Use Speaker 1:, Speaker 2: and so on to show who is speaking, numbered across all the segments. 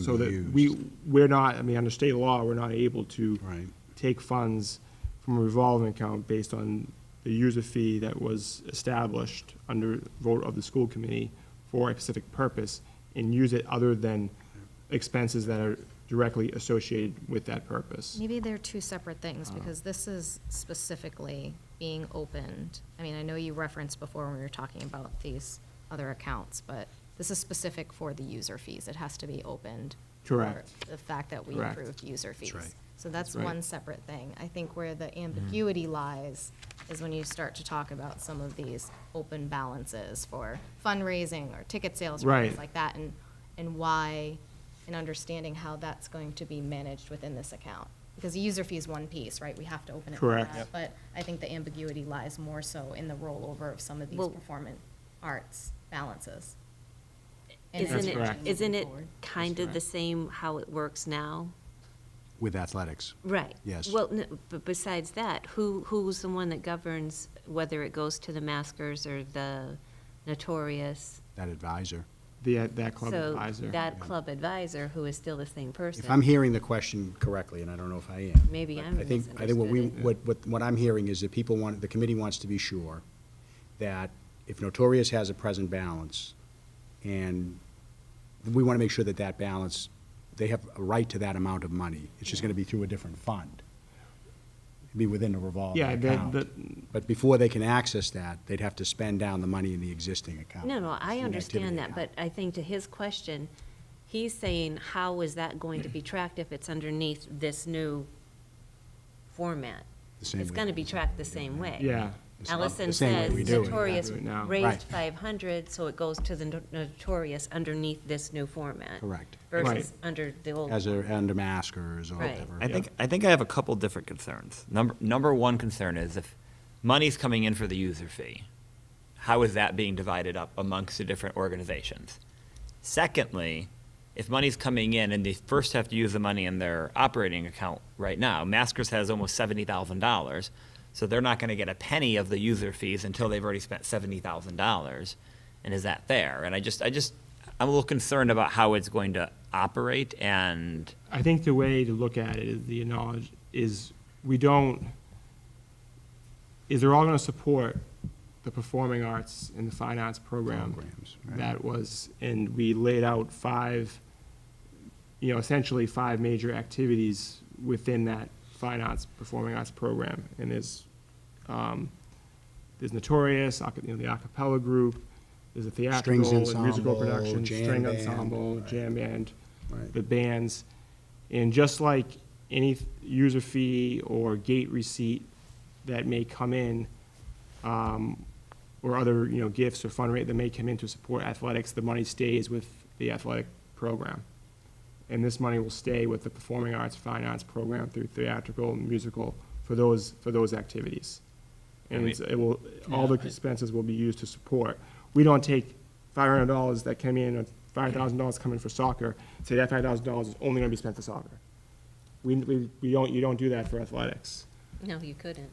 Speaker 1: so that
Speaker 2: used.
Speaker 1: we, we're not, I mean, under state law, we're not able to
Speaker 2: Right.
Speaker 1: take funds from a revolving account based on the user fee that was established under vote of the school committee for a specific purpose and use it other than expenses that are directly associated with that purpose.
Speaker 3: Maybe they're two separate things, because this is specifically being opened. I mean, I know you referenced before when we were talking about these other accounts, but this is specific for the user fees. It has to be opened. for
Speaker 1: Correct.
Speaker 3: The fact that we
Speaker 1: Correct.
Speaker 3: approved user fees.
Speaker 2: right.
Speaker 3: So that's
Speaker 1: right.
Speaker 3: one separate thing. I think where the ambiguity lies is when you start to talk about some of these open balances for fundraising or ticket sales or
Speaker 1: Right.
Speaker 3: things like that, and, and why, and understanding how that's going to be managed within this account. Because the user fee is one piece, right? We have to open it. for
Speaker 1: Correct.
Speaker 3: that,
Speaker 1: Yep.
Speaker 3: But I think the ambiguity lies more so in the rollover of some of these
Speaker 4: Well-
Speaker 3: performing arts balances. And
Speaker 1: That's
Speaker 4: Isn't it,
Speaker 1: correct.
Speaker 4: isn't
Speaker 3: Moving
Speaker 4: it
Speaker 3: forward.
Speaker 4: kind of the
Speaker 1: correct.
Speaker 4: same how it works now?
Speaker 2: With athletics.
Speaker 4: Right.
Speaker 2: Yes.
Speaker 4: Well, n- but besides that, who, who's the one that governs whether it goes to the maskers or the notorious?
Speaker 2: That advisor.
Speaker 1: The, that club advisor.
Speaker 4: So that club advisor, who is still the same person.
Speaker 2: If I'm hearing the question correctly, and I don't know if I am.
Speaker 4: Maybe
Speaker 2: but
Speaker 4: I'm
Speaker 2: I think, I think what we,
Speaker 4: misunderstood it.
Speaker 2: what, what, what I'm hearing is that people want, the committee wants to be sure that if Notorious has a present balance, and we want to make sure that that balance, they have a right to that amount of money. It's just going to be through a different fund. It'd Be within a revolving
Speaker 1: Yeah, the-
Speaker 2: account.
Speaker 1: the-
Speaker 2: But before they can access that, they'd have to spend down the money in the existing account.
Speaker 4: No,
Speaker 2: the
Speaker 4: no, I
Speaker 2: activity
Speaker 4: understand that,
Speaker 2: account.
Speaker 4: but I think to his question, he's saying, how is that going to be tracked if it's underneath this new format?
Speaker 2: The same
Speaker 4: It's
Speaker 2: way
Speaker 4: gonna
Speaker 2: we
Speaker 4: be
Speaker 2: do it
Speaker 4: tracked the
Speaker 2: now.
Speaker 4: same way.
Speaker 1: Yeah.
Speaker 2: It's not
Speaker 4: Allison
Speaker 2: the same way
Speaker 4: says
Speaker 2: we do it.
Speaker 4: Notorious
Speaker 1: Do it now.
Speaker 2: Right.
Speaker 4: raised five hundred, so it goes to the no- Notorious underneath this new format.
Speaker 2: Correct.
Speaker 1: Right.
Speaker 4: Versus under the old.
Speaker 2: As a, under maskers or
Speaker 4: Right.
Speaker 2: whatever.
Speaker 5: I think, I think I have a couple different concerns. Number, number one concern is if money's coming in for the user fee, how is that being divided up amongst the different organizations? Secondly, if money's coming in and they first have to use the money in their operating account right now, Maskers has almost seventy thousand dollars, so they're not gonna get a penny of the user fees until they've already spent seventy thousand dollars. And is that fair? And I just, I just, I'm a little concerned about how it's going to operate and
Speaker 1: I think the way to look at it is the knowledge is we don't is they're all going to support the performing arts and the fine arts program
Speaker 2: Programs, right.
Speaker 1: that was and we laid out five you know essentially five major activities within that fine arts performing arts program and there's um, there's notorious aca- you know, the a cappella group there's a theatrical and musical
Speaker 2: ensemble,
Speaker 1: production
Speaker 2: jam
Speaker 1: string
Speaker 2: band,
Speaker 1: ensemble
Speaker 2: right.
Speaker 1: jam band
Speaker 2: Right.
Speaker 1: the bands. And just like any th- user fee or gate receipt that may come in, um, or other, you know, gifts or fundraising that may come in to support athletics, the money stays with the athletic program. And this money will stay with the performing arts, fine arts program through theatrical and musical for those, for those activities. And it's- it will, all the expenses will be used to support. We don't take five hundred dollars that came in, or five thousand dollars coming for soccer, say that five thousand dollars is only gonna be spent for soccer. We, we, we don't, you don't do that for athletics.
Speaker 4: No, you couldn't.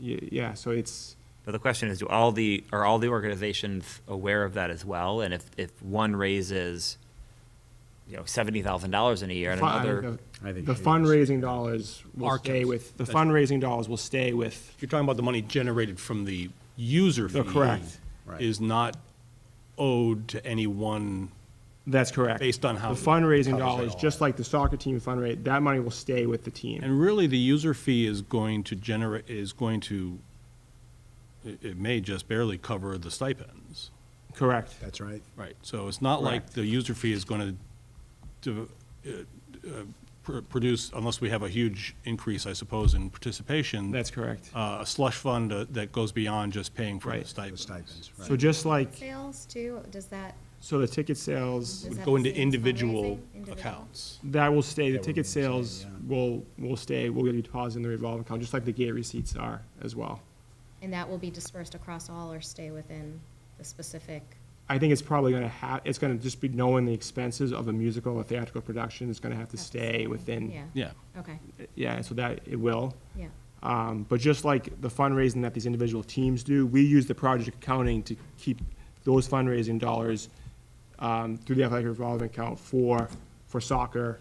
Speaker 1: Y- Yeah, so it's,
Speaker 5: But the question is, do all the, are all the organizations aware of that as well? And if, if one raises, you know, seventy thousand dollars in a year and
Speaker 1: Fun-
Speaker 5: another,
Speaker 1: The
Speaker 2: I think
Speaker 1: the
Speaker 2: she is.
Speaker 1: fundraising dollars will
Speaker 6: Our
Speaker 1: stay
Speaker 6: case.
Speaker 1: with, the
Speaker 6: That's-
Speaker 1: fundraising dollars will stay with,
Speaker 6: You're talking about the money generated from the user fee.
Speaker 1: They're correct.
Speaker 2: Right.
Speaker 6: Is not owed to any one,
Speaker 1: that's correct.
Speaker 6: Based on how
Speaker 1: The fundraising
Speaker 6: it covers it
Speaker 1: dollars,
Speaker 6: all.
Speaker 1: just like the soccer team fundraise, that money will stay with the team.
Speaker 6: and really, the user fee is going to generate, is going to, it it may just barely cover the stipends.
Speaker 1: Correct.
Speaker 2: That's right.
Speaker 6: Right. So it's not like
Speaker 1: Correct.
Speaker 6: the user fee is going to uh, produce, unless we have a huge increase, I suppose, in participation.
Speaker 1: That's correct.
Speaker 6: uh, A slush fund uh, that goes beyond just paying for the
Speaker 1: Right.
Speaker 2: The
Speaker 6: stipends.
Speaker 2: stipends,
Speaker 1: So
Speaker 2: right.
Speaker 1: just like,
Speaker 3: Sales too, does that?
Speaker 1: so the ticket sales,
Speaker 3: Is
Speaker 6: Would
Speaker 3: that the
Speaker 6: go into
Speaker 3: same as
Speaker 6: individual
Speaker 3: fundraising? Individual?
Speaker 6: accounts.
Speaker 1: that will stay, the
Speaker 2: That
Speaker 1: ticket
Speaker 2: remains the same,
Speaker 1: sales
Speaker 2: yeah.
Speaker 1: will, will stay, will be deposited in the revolving account, just like the gate receipts are as well.
Speaker 3: And that will be dispersed across all or stay within the specific?
Speaker 1: I think it's probably gonna have, it's gonna just be knowing the expenses of a musical or theatrical production is gonna have to stay
Speaker 3: Yeah.
Speaker 1: within,
Speaker 6: Yeah.
Speaker 3: Okay,
Speaker 1: yeah, so that, it will.
Speaker 3: yeah.
Speaker 1: Um, but just like the fundraising that these individual teams do, we use the project accounting to keep those fundraising dollars um, through the athletic revolving account for for soccer